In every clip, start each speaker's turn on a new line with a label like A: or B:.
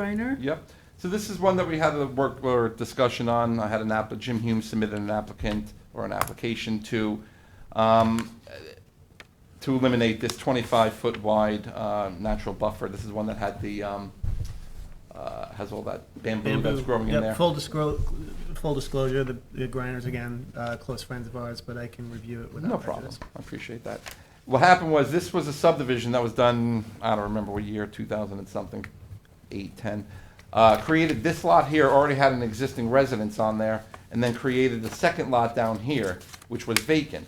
A: Griner?
B: Yep. So this is one that we had a work or discussion on. I had an app, Jim Hume submitted an applicant or an application to, um, to eliminate this twenty-five foot wide, uh, natural buffer. This is one that had the, um, uh, has all that bamboo that's
C: Bamboo.
B: growing in
C: Yep,
B: there.
C: Full disclosure, full disclosure, the the grinders, again, uh, close friends of ours, but I can review it without
B: No problem.
C: prejudice.
B: I appreciate that. What happened was, this was a subdivision that was done, I don't remember what year, 2000 and something, 8, 10. Uh, Created this lot here, already had an existing residence on there, and then created the second lot down here, which was vacant.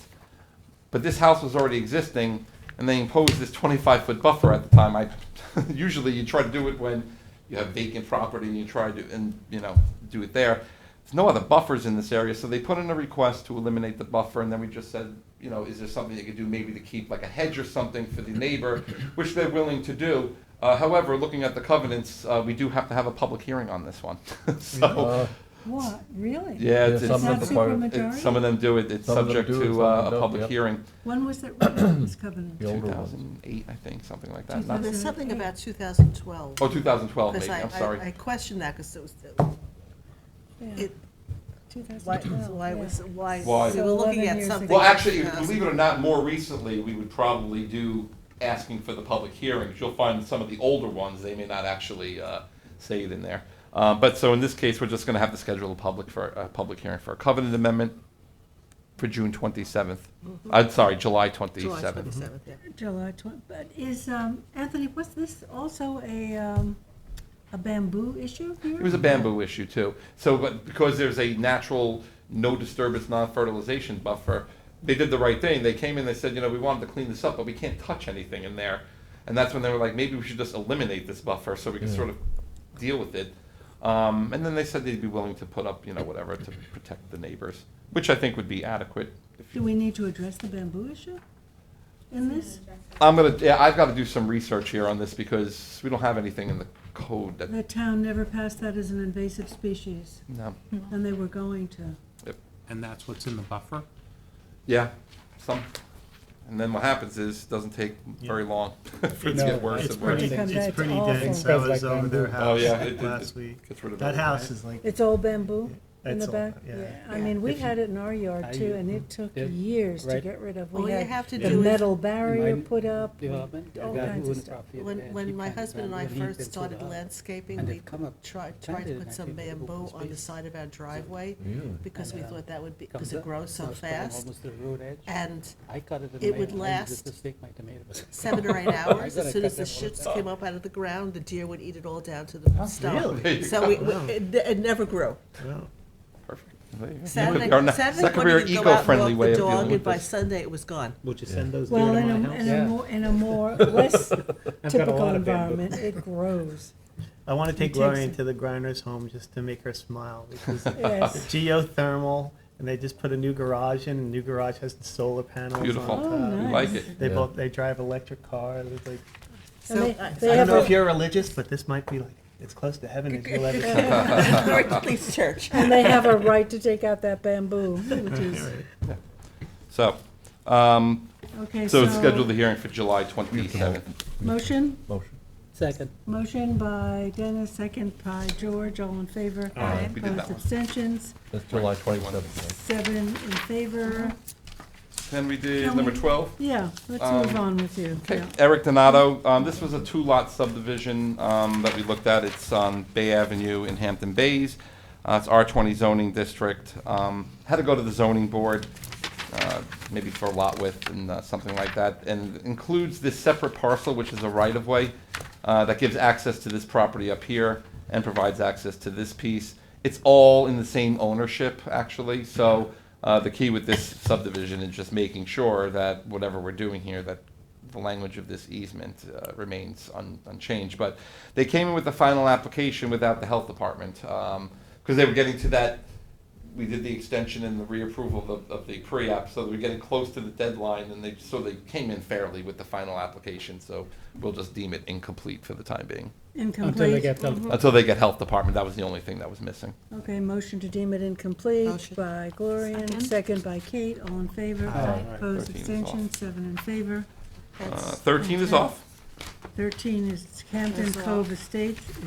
B: But this house was already existing, and they imposed this 25-foot buffer at the time. I, usually you try to do it when you have vacant property and you try to, and, you know, do it there. There's no other buffers in this area, so they put in a request to eliminate the buffer, and then we just said, you know, is there something you could do maybe to keep like a hedge or something for the neighbor, which they're willing to do. Uh, However, looking at the covenants, uh, we do have to have a public hearing on this one. So,
D: Uh,
A: What,
B: yeah,
A: really?
B: it's,
D: Yeah,
B: it's-
D: some of
A: Not
D: the part-
B: it's-
A: supermajority?
B: some of them do it, it's
D: Some of them
B: subject
D: do it,
B: to
D: some
B: uh,
D: of them
B: a
D: don't,
B: public
D: yep.
B: hearing.
A: When was it written, this covenant?
D: The older ones.
B: 2008, I think, something like that.
E: Well,
B: Not,
E: there's something about 2012.
B: oh, 2012,
E: because
B: maybe.
E: I-
B: I'm
E: I- I
B: sorry.
E: questioned that, because it was,
A: Yeah,
E: it, why,
A: 2012,
E: why
A: yeah.
E: was, why,
B: Why?
E: we were looking
A: So 11
E: at
A: years
E: something.
A: ago.
B: Well, actually,
E: in 2000.
B: believe it or not, more recently, we would probably do asking for the public hearings. You'll find some of the older ones, they may not actually uh, say it in there. Uh, But so in this case, we're just going to have to schedule a public for a public hearing for a covenant amendment for June 27th. I'm sorry, July
E: Mm-hmm. July
B: 27th.
E: 27th, yeah.
A: July 20, but is, um, Anthony, was this also a, um, a bamboo issue here?
B: It was a bamboo issue too. So, but because there's a natural, no disturbance, non-fertilization buffer, they did the right thing. They came in, they said, you know, we wanted to clean this up, but we can't touch anything in there. And that's when they were like, maybe we should just eliminate this buffer so we can
D: Yeah.
B: sort of deal with it. Um, and then they said they'd be willing to put up, you know, whatever to protect the neighbors, which I think would be adequate. if
A: Do
B: you-
A: we need to address the bamboo issue in this?
B: I'm gonna, yeah, I've gotta do some research here on this because we don't have anything in the code that,
A: The town never passed that as an invasive species,
B: no,
A: and they were going to.
F: And that's what's in the buffer?
B: Yeah, some, and then what happens is, it doesn't take very long for it to
C: No,
B: get worse
C: It's
B: and worse.
C: pretty,
A: Come back,
C: it's
A: it's
C: pretty
A: awful.
C: dense. I
D: Spreads
C: was
D: like
C: over their
D: bamboo.
B: Oh,
C: house
B: yeah, it- it-
C: last
B: it
C: week.
B: gets rid of
C: That
B: everything.
C: house is like,
A: It's all bamboo in
C: It's
A: the
C: all-
A: back?
C: yeah.
A: I mean, we
D: If you-
A: had it in our yard
D: I-
A: too, and it took
D: Yeah,
A: years to
D: right.
A: get rid of.
E: All
A: We
E: you
A: had
E: have to
A: the
E: do is,
A: metal barrier
D: My
A: put up.
D: development,
A: all
D: a guy
A: kinds
D: who
A: of
D: owned
A: stuff.
D: property
E: oh, when,
D: and he
E: when my
D: planted
E: husband and I
D: bamboo, he
E: first
D: built
E: started
D: solar.
E: landscaping,
D: and
E: we
D: they've come up
E: tried, tried
D: planted
E: to
D: it, and I
E: put some
D: think they've
E: bamboo
D: opened
E: on the
D: space.
E: side of our driveway, because we
D: And, uh,
E: thought that would be,
D: Comes
E: because it
D: up,
E: grows so
D: comes down
E: fast,
D: Almost to the road edge.
E: and
D: I cut it in
E: it
D: May,
E: would
D: and I
E: last
D: used to stake my tomatoes.
E: seven or eight hours,
D: gotta
E: as soon
D: cut
E: as the
D: them all
E: shoots
D: down.
E: came up out of the ground, the deer would eat it all down to the stump.
B: There you
E: So
B: go.
E: we, we- it, it never grew.
C: well,
B: Perfect. There you go.
E: Saturday,
B: Our ne-
E: Saturday
B: that could be our
E: morning, you'd go out and
B: eco-friendly
E: walk
B: way
E: the
B: of dealing
E: dog,
B: with
E: and by
B: this.
E: Sunday, it was gone.
C: would you send those deer
A: Well,
C: to
A: in a,
C: my
A: in
C: house?
A: a
D: Yeah.
A: more, in a more, less
C: I've got a
A: typical
C: lot of bamboo.
A: environment, it grows.
C: I want to
A: It
C: take
A: takes
C: Gloria
A: it.
C: into the grinder's home just to make her smile because it's
A: Yes.
C: geothermal and they just put a new garage in. And the new garage has solar panels.
B: Beautiful.
C: On
A: Oh,
C: top.
B: We
A: nice.
B: like it.
C: They
D: Yeah.
C: both they drive electric cars. It's like
A: And
E: So,
A: they-
E: I-
A: they
C: I
A: have
C: don't know if
A: a-
C: you're religious, but this might be like as close to heaven as you'll ever get.
E: Please, church.
A: And they have a right to take out that bamboo, which is,
B: So, um,
A: okay,
B: so
A: so.
B: schedule the hearing for July twenty-seventh.
A: Motion,
D: Motion. Second.
A: motion by Dennis, second by George, all in favor.
B: Aye. We did that
A: Opposed,
B: one.
A: abstentions,
D: That's July twenty-seventh.
A: seven in favor.
B: Then we did
A: Can
B: number
A: we-
B: twelve.
A: Yeah, let's
B: Um,
A: move on with you.
B: Okay,
A: yeah.
B: Eric Donato, um, this was a two-lot subdivision, um, that we looked at, it's on Bay Avenue in Hampton Bays. Uh, it's R twenty zoning district, um, had to go to the zoning board, uh, maybe for lot width and, uh, something like that. And includes this separate parcel, which is a right-of-way, uh, that gives access to this property up here and provides access to this piece. It's all in the same ownership, actually, so, uh, the key with this subdivision is just making sure that whatever we're doing here, that the language of this easement uh, remains un- unchanged. But they came in with the final application without the health department, because they were getting to that, we did the extension and the reapproval of, of the pre-app, so they were getting close to the deadline, and they, so they came in fairly with the final application, so we'll just deem it incomplete for the time being.
A: Incomplete.
B: Until they get health department, that was the only thing that was missing.
A: Okay, motion to deem it incomplete
E: Motion.
A: by Gloria,
E: Second.
A: second by Kate, all in favor.
C: Aye.
A: Opposed,
B: 13 is off.
A: abstentions, seven in favor.
B: Uh,
E: That's-
B: Thirteen is
A: okay.
B: off.
A: Thirteen is Camden
E: That's all.
A: Cove Estates,